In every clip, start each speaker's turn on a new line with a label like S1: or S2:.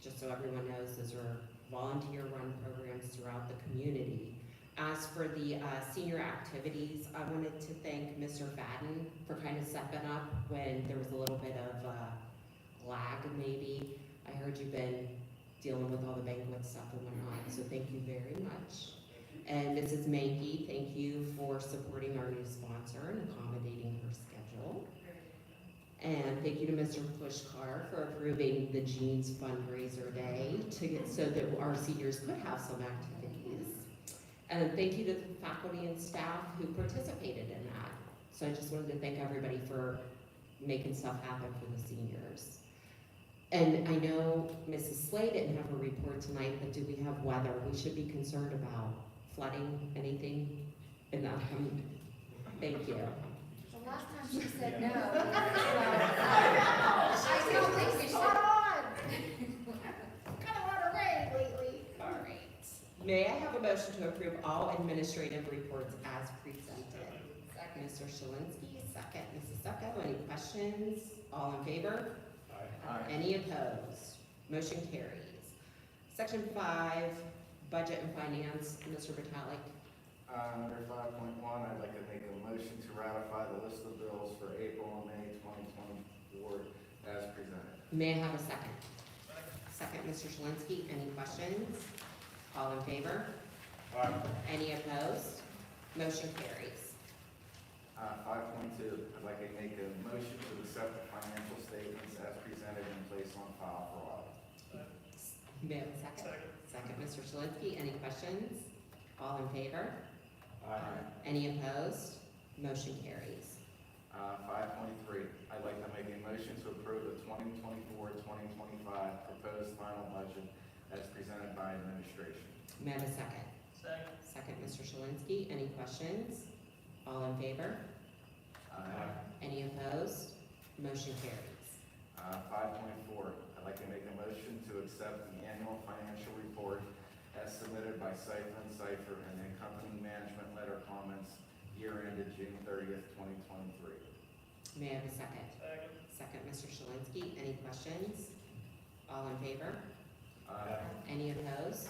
S1: so everyone knows those are volunteer-run programs throughout the community. As for the uh, senior activities, I wanted to thank Mr. Fadden for kind of stepping up when there was a little bit of uh, lag, maybe. I heard you've been dealing with all the banquet stuff and whatnot, so thank you very much. And Mrs. Mankey, thank you for supporting our new sponsor and accommodating her schedule. And thank you to Mr. Pushkar for approving the Jeans fundraiser day to get, so that our seniors could have some activities. And thank you to the faculty and staff who participated in that. So I just wanted to thank everybody for making stuff happen for the seniors. And I know Mrs. Slay didn't have a report tonight, but do we have weather? We should be concerned about flooding, anything in that. um, Thank you.
S2: The last time she said no. uh, I don't think we should. Kind of want to rain lately. All right.
S1: May I have a motion to approve all administrative reports as presented?
S2: Second.
S1: Mr. Shalinski, second. Mrs. Sucko, any questions? All in favor? Any opposed? Motion carries. Section five, Budget and Finance, Mr. Vitalik.
S3: Uh, Under five point one, I'd like to make a motion to ratify the list of bills for April and May twenty twenty-four as presented.
S1: May I have a second? Second, Mr. Shalinski, any questions? All in favor? Any opposed? Motion carries.
S3: Uh, Five point two, I'd like to make a motion to accept the financial statements as presented and place on file for audit.
S1: May I have a second? Second, Mr. Shalinski, any questions? All in favor? Any opposed? Motion carries.
S3: Uh, Five point three, I'd like to make a motion to approve the 2024-2025 proposed final budget as presented by administration.
S1: May I have a second? Second, Mr. Shalinski, any questions? All in favor?
S3: Aye.
S1: Any opposed? Motion carries.
S3: Uh, Five point four, I'd like to make a motion to accept the annual financial report as submitted by Cypher and Cypher and the accompanying management letter comments year ended June thirtieth, twenty twenty-three.
S1: May I have a second? Second, Mr. Shalinski, any questions? All in favor?
S3: Uh,
S1: Any opposed?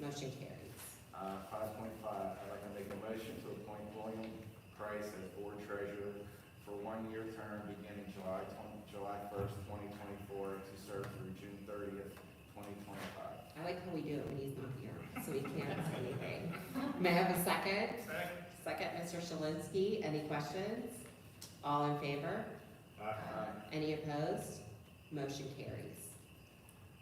S1: Motion carries.
S3: Five point five, I'd like to make a motion to appoint William Price as board treasurer for one-year term beginning July twenty, July first, twenty twenty-four to serve through June thirtieth, twenty twenty-five.
S1: I like how we do it when he's not here, so he can't say anything. May I have a second? Second, Mr. Shalinski, any questions? All in favor? Any opposed? Motion carries.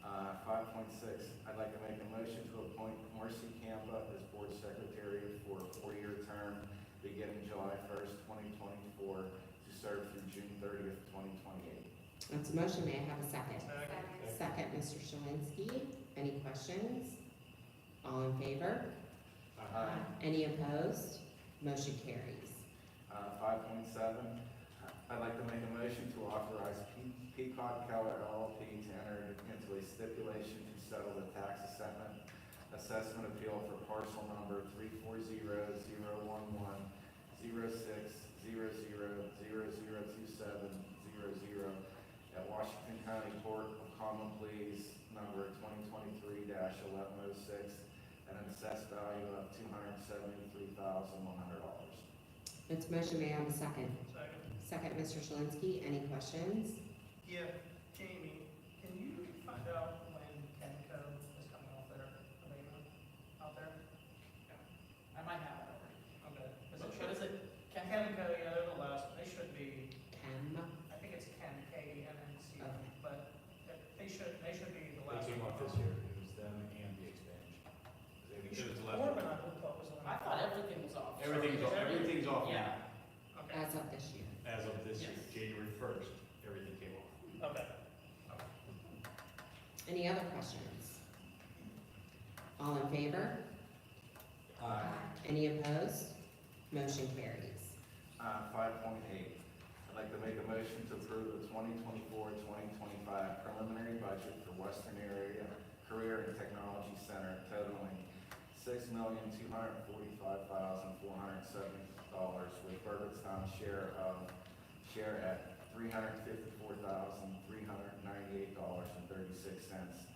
S3: Uh, five point six, I'd like to make a motion to appoint Marcy Campa as board secretary for a four-year term beginning July first, twenty twenty-four to serve through June thirtieth, twenty twenty-eight.
S1: That's a motion, may I have a second?
S2: Second.
S1: Second, Mr. Shalinski, any questions? All in favor? Any opposed? Motion carries.
S3: Uh, five point seven, I'd like to make a motion to authorize Pe- Peacock Keller LLP to enter into a stipulation to settle the tax assessment, assessment appeal for parcel number three four zero zero one one zero six zero zero zero zero two seven zero zero at Washington County Court of Common Pleas, number twenty twenty-three eleven oh six, at an assessed value of two hundred seventy-three thousand one hundred dollars.
S1: That's a motion, may I have a second? Second, Mr. Shalinski, any questions?
S4: Yeah, Jamie, can you find out when Kenco is coming off their abatement out there? I might have it already. Okay, is it, what is it, Ken- Kenco, yeah, they're the last, they should be,
S1: Ken?
S4: I think it's Ken, K E N N C,
S1: Okay.
S4: but they should, they should be the
S5: They
S4: last.
S5: came
S4: one.
S5: up this year, it was them and the expansion. They
S4: You
S5: did
S4: should
S5: it
S4: Foreman,
S5: left.
S4: I would thought was the one.
S6: I thought everything was off.
S5: Everything's off, everything's off now.
S6: Yeah.
S4: Okay,
S1: As of this year.
S5: As of this year,
S6: Yes.
S5: January first, everything came off.
S4: okay.
S1: Any other questions? All in favor?
S6: Uh,
S1: Any opposed? Motion carries.
S3: Uh, five point eight, I'd like to make a motion to approve the 2024-2025 preliminary budget for Western Area Career and Technology Center totaling six million, two hundred forty-five thousand, four hundred seventy dollars with Burgettstown's share of, share at three hundred fifty-four thousand, three hundred ninety-eight dollars and thirty-six cents